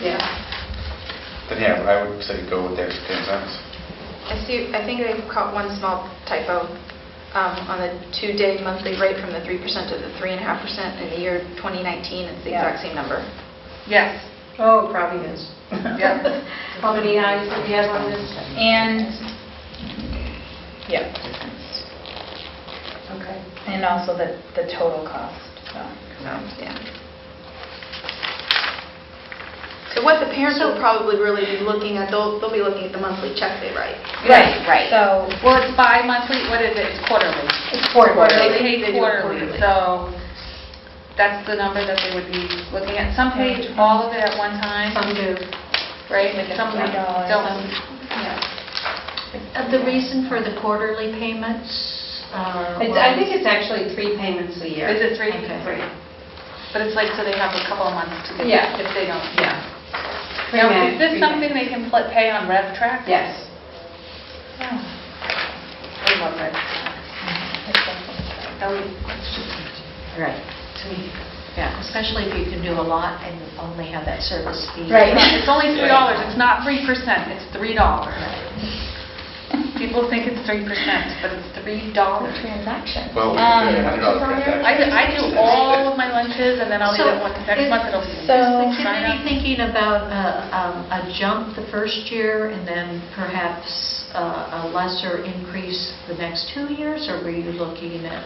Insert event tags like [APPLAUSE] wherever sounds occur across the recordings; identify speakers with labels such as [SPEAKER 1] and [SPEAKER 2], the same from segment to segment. [SPEAKER 1] Yeah.
[SPEAKER 2] Then yeah, but I would say go with the extra 10 cents.
[SPEAKER 1] I see, I think they caught one small typo um, on the two-day monthly rate from the 3% to the 3.5%. In the year 2019, it's the
[SPEAKER 3] Yeah.
[SPEAKER 1] exact same number.
[SPEAKER 3] Yes.
[SPEAKER 4] Oh, it probably is.
[SPEAKER 3] Yep.
[SPEAKER 4] [LAUGHS] How many eyes do we have on this?
[SPEAKER 3] And, yeah,
[SPEAKER 4] Okay.
[SPEAKER 3] and also the, the total cost, so.
[SPEAKER 1] Yeah. So what the parents will probably really be looking at, they'll, they'll be looking at the monthly check they write.
[SPEAKER 3] So,
[SPEAKER 5] Well, it's bi-monthly, what is it, it's quarterly?
[SPEAKER 4] It's quarterly.
[SPEAKER 5] They
[SPEAKER 1] They
[SPEAKER 5] pay
[SPEAKER 1] do it
[SPEAKER 5] quarterly,
[SPEAKER 1] quarterly.
[SPEAKER 5] so that's the number that they would be looking at. Some pay all of it at one time,
[SPEAKER 4] Some do.
[SPEAKER 5] right?
[SPEAKER 3] Like a
[SPEAKER 5] Some
[SPEAKER 3] few dollars,
[SPEAKER 5] don't.
[SPEAKER 6] Uh, The reason for the quarterly payments are...
[SPEAKER 4] It's- I think it's actually three payments a year.
[SPEAKER 5] Is it three?
[SPEAKER 4] Okay.
[SPEAKER 5] Three. But it's like, so they have a couple of months to get
[SPEAKER 4] Yeah.
[SPEAKER 5] it if they don't.
[SPEAKER 4] Yeah.
[SPEAKER 5] Now, is
[SPEAKER 4] Pre-med,
[SPEAKER 5] this
[SPEAKER 4] pre-med.
[SPEAKER 5] something they can pl- pay on RevTrak?
[SPEAKER 4] Yes.
[SPEAKER 5] I love RevTrak. That would be
[SPEAKER 4] Right.
[SPEAKER 6] Yeah, especially if you can do a lot and only have that service fee.
[SPEAKER 3] Right.
[SPEAKER 4] [LAUGHS]
[SPEAKER 5] It's only three dollars, it's not three percent, it's three dollars. People think it's three percent, but it's three
[SPEAKER 3] the
[SPEAKER 5] dollars.
[SPEAKER 3] transaction.
[SPEAKER 2] Well, we
[SPEAKER 3] Um,
[SPEAKER 2] could do a hundred dollar transaction.
[SPEAKER 5] I, do- I do all of my lunches and then I'll leave
[SPEAKER 6] So
[SPEAKER 5] it one, next
[SPEAKER 6] it-
[SPEAKER 5] month it'll be.
[SPEAKER 3] so-
[SPEAKER 6] Is the
[SPEAKER 5] Sign
[SPEAKER 6] committee
[SPEAKER 5] up.
[SPEAKER 6] thinking about uh, um, a jump the first year and then perhaps uh, a lesser increase the next two years? Or were you looking at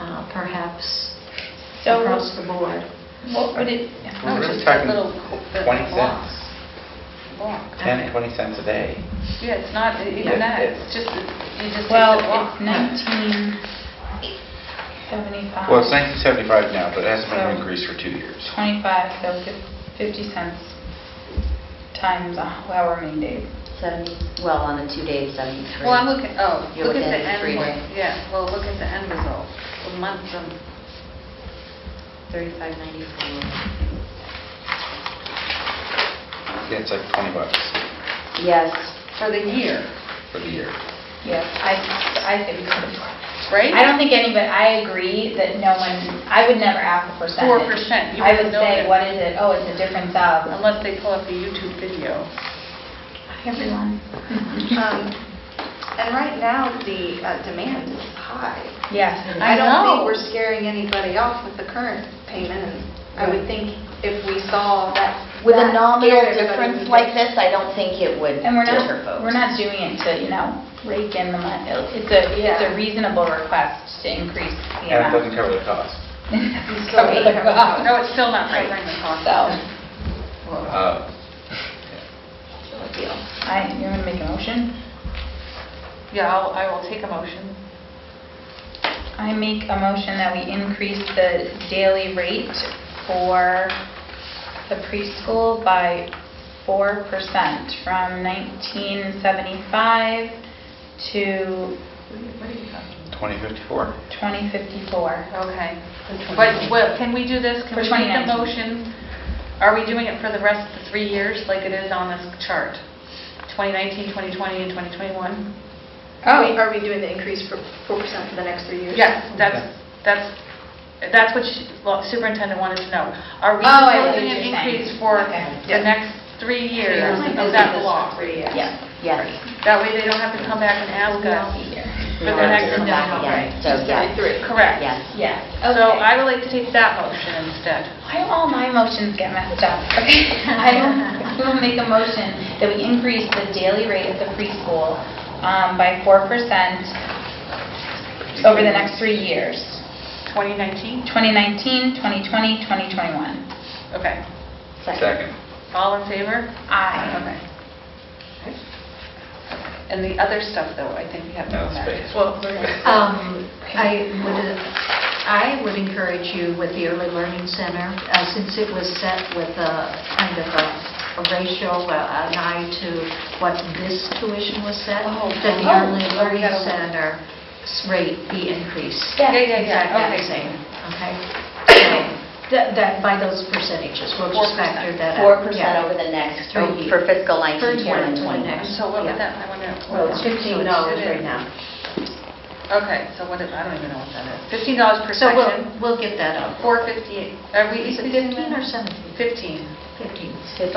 [SPEAKER 6] uh, perhaps
[SPEAKER 3] So-
[SPEAKER 6] across the board?
[SPEAKER 3] What would it,
[SPEAKER 5] No,
[SPEAKER 2] We're
[SPEAKER 5] just
[SPEAKER 2] really
[SPEAKER 5] that
[SPEAKER 2] talking
[SPEAKER 5] little- the
[SPEAKER 2] 20
[SPEAKER 5] block.
[SPEAKER 2] cents,
[SPEAKER 5] Block.
[SPEAKER 2] 10, 20 cents a day.
[SPEAKER 5] Yeah, it's not
[SPEAKER 2] Yeah.
[SPEAKER 5] even that, it's just, you just take
[SPEAKER 3] well,
[SPEAKER 5] the block.
[SPEAKER 3] it's 1975.
[SPEAKER 2] Well, it's 1975 now, but it hasn't been
[SPEAKER 3] So-
[SPEAKER 2] increased for two years.
[SPEAKER 3] 25, so fif- 50 cents times a- however many days.
[SPEAKER 7] 70, well, on the two days, 73.
[SPEAKER 5] Well, I'm looking, oh,
[SPEAKER 7] You're
[SPEAKER 5] look at
[SPEAKER 7] within
[SPEAKER 5] the end,
[SPEAKER 7] three.
[SPEAKER 5] one. yeah, well, look at the end result, the month, um,
[SPEAKER 7] 3594.
[SPEAKER 2] Yeah, it's like 20 bucks
[SPEAKER 7] Yes,
[SPEAKER 5] for the year,
[SPEAKER 2] for the year.
[SPEAKER 3] Yes, I, I think we could afford it.
[SPEAKER 5] right?
[SPEAKER 3] I don't think anybody, I agree that no one, I would never ask a percentage.
[SPEAKER 5] 4%, you
[SPEAKER 3] I would
[SPEAKER 5] wouldn't know
[SPEAKER 3] say,
[SPEAKER 5] that.
[SPEAKER 3] what is it? Oh, it's a difference of.
[SPEAKER 5] Unless they pull up a YouTube video.
[SPEAKER 3] Everyone.
[SPEAKER 1] Um, And right now, the uh, demand is high.
[SPEAKER 3] Yes.
[SPEAKER 1] I don't
[SPEAKER 5] know.
[SPEAKER 1] think we're scaring anybody off with the current payment. and I would think if we saw that...
[SPEAKER 7] with
[SPEAKER 1] that
[SPEAKER 7] a nominal
[SPEAKER 1] scared everybody,
[SPEAKER 7] difference
[SPEAKER 1] we'd
[SPEAKER 7] like this, I don't think it would
[SPEAKER 3] And we're
[SPEAKER 7] deter
[SPEAKER 3] not,
[SPEAKER 7] folks.
[SPEAKER 3] we're not doing it to, you know, rake in the money. It's a, it's
[SPEAKER 1] Yeah.
[SPEAKER 3] a reasonable request to increase the
[SPEAKER 2] And it
[SPEAKER 3] amount. [LAUGHS]
[SPEAKER 2] doesn't cover the cost.
[SPEAKER 3] Cover the cost. [LAUGHS]
[SPEAKER 5] No, it's still not covering the cost.
[SPEAKER 3] Oh. So,
[SPEAKER 2] Uh,
[SPEAKER 5] Whoa.
[SPEAKER 3] I, you want to make a motion?
[SPEAKER 5] Yeah, I'll, I will take a motion.
[SPEAKER 3] I make a motion that we increase the daily rate for the preschool by 4% from 1975 to
[SPEAKER 5] What are you talking
[SPEAKER 2] 2054.
[SPEAKER 3] 2054.
[SPEAKER 5] Okay. But, well, can we do this? Can
[SPEAKER 3] For
[SPEAKER 5] we make a
[SPEAKER 3] 2019.
[SPEAKER 5] motion? Are we doing it for the rest of the three years like it is on this chart? 2019, 2020, and 2021?
[SPEAKER 1] Are we- are we doing the increase for 4% for the next three years?
[SPEAKER 5] Yes, that's, that's, that's what she- well, superintendent wanted to know. Are we
[SPEAKER 3] Oh, I see what
[SPEAKER 5] proposing an
[SPEAKER 3] you're saying.
[SPEAKER 5] increase for
[SPEAKER 3] Okay.
[SPEAKER 5] the next three years
[SPEAKER 6] Like
[SPEAKER 5] of
[SPEAKER 6] this
[SPEAKER 5] that
[SPEAKER 6] is
[SPEAKER 5] block?
[SPEAKER 6] three, yeah.
[SPEAKER 3] Yes.
[SPEAKER 7] Yes.
[SPEAKER 5] That way they don't have to come back and ask us.
[SPEAKER 7] We
[SPEAKER 5] the
[SPEAKER 7] don't have to
[SPEAKER 5] next
[SPEAKER 7] come
[SPEAKER 5] one.
[SPEAKER 7] back
[SPEAKER 5] No,
[SPEAKER 7] again.
[SPEAKER 5] right.
[SPEAKER 7] So,
[SPEAKER 1] Just
[SPEAKER 7] yes,
[SPEAKER 1] 33.
[SPEAKER 5] Correct.
[SPEAKER 7] yes.
[SPEAKER 3] Yes.
[SPEAKER 5] So I would like to take that motion instead.
[SPEAKER 3] Why do all my motions get messed up? [LAUGHS] Okay, I will- I will make a motion that we increase the daily rate of the preschool um, by 4% over the next three years,
[SPEAKER 5] 2019?
[SPEAKER 3] 2019, 2020, 2021.
[SPEAKER 5] Okay.
[SPEAKER 2] Second.
[SPEAKER 5] All in favor?
[SPEAKER 3] Aye.
[SPEAKER 5] Okay. And the other stuff, though, I think we have to
[SPEAKER 2] No
[SPEAKER 5] go back.
[SPEAKER 2] space.
[SPEAKER 5] Well, we're
[SPEAKER 2] [LAUGHS]
[SPEAKER 5] gonna-
[SPEAKER 6] Um, I would, I would encourage you with the Early Learning Center, uh, since it was set with a kind of a a ratio, uh, an eye to what this tuition was set,
[SPEAKER 5] Oh,
[SPEAKER 6] that the
[SPEAKER 5] oh,
[SPEAKER 6] Early
[SPEAKER 5] oh, we
[SPEAKER 6] Learning
[SPEAKER 5] gotta-
[SPEAKER 6] Center's rate be increased.
[SPEAKER 5] Yeah, yeah,
[SPEAKER 6] Exact
[SPEAKER 5] yeah,
[SPEAKER 6] that
[SPEAKER 5] okay.
[SPEAKER 6] same,
[SPEAKER 5] [COUGHS]
[SPEAKER 6] okay? So, That, that- by those percentages, we'll
[SPEAKER 5] 4%.
[SPEAKER 6] just factor that out.
[SPEAKER 7] 4%
[SPEAKER 6] Yeah.
[SPEAKER 7] over the next,
[SPEAKER 6] Three
[SPEAKER 7] oh, for fiscal
[SPEAKER 6] For
[SPEAKER 7] 19, 20, and
[SPEAKER 6] 20,
[SPEAKER 7] 21.
[SPEAKER 6] next.
[SPEAKER 5] So what would
[SPEAKER 6] Yeah.
[SPEAKER 5] that, I wonder.
[SPEAKER 6] Well, it's $15 right now.
[SPEAKER 5] Okay, so what is, I don't even know what that is. Fifteen dollars per
[SPEAKER 6] So we'll,
[SPEAKER 5] section,
[SPEAKER 6] we'll get that up.
[SPEAKER 5] four fifty-eight. Are we,
[SPEAKER 6] Is
[SPEAKER 5] is
[SPEAKER 6] it 15 or 17?
[SPEAKER 5] Fifteen.
[SPEAKER 6] 15.
[SPEAKER 7] Fif-